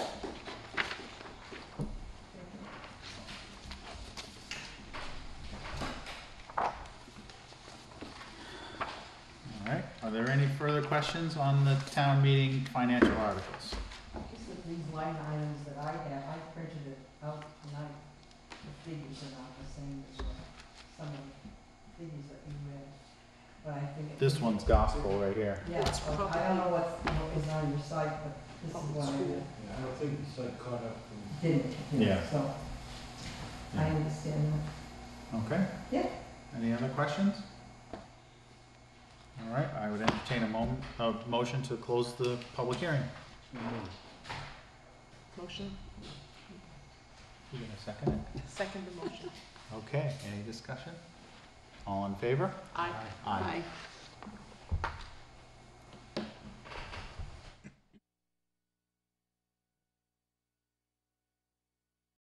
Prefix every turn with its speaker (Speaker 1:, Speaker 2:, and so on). Speaker 1: questions on the town meeting financial articles?
Speaker 2: These are these line items that I have, I printed it out tonight. The figures are not the same as what some of the figures that you read, but I think. it-
Speaker 1: This one's gospel right here.
Speaker 2: Yeah, well, I don't know what, what is on your site, but this is what I
Speaker 3: Yeah, I don't think it's like caught up in.
Speaker 2: didn't, you know,
Speaker 1: Yeah.
Speaker 2: so. I understand that.
Speaker 1: Okay?
Speaker 2: Yeah.
Speaker 1: Any other questions? All right, I would entertain a moment, a motion to close the public hearing.
Speaker 4: Motion,
Speaker 1: You gonna second it?
Speaker 4: second the motion.
Speaker 1: Okay, any discussion? All in favor?
Speaker 4: Aye.
Speaker 1: Aye.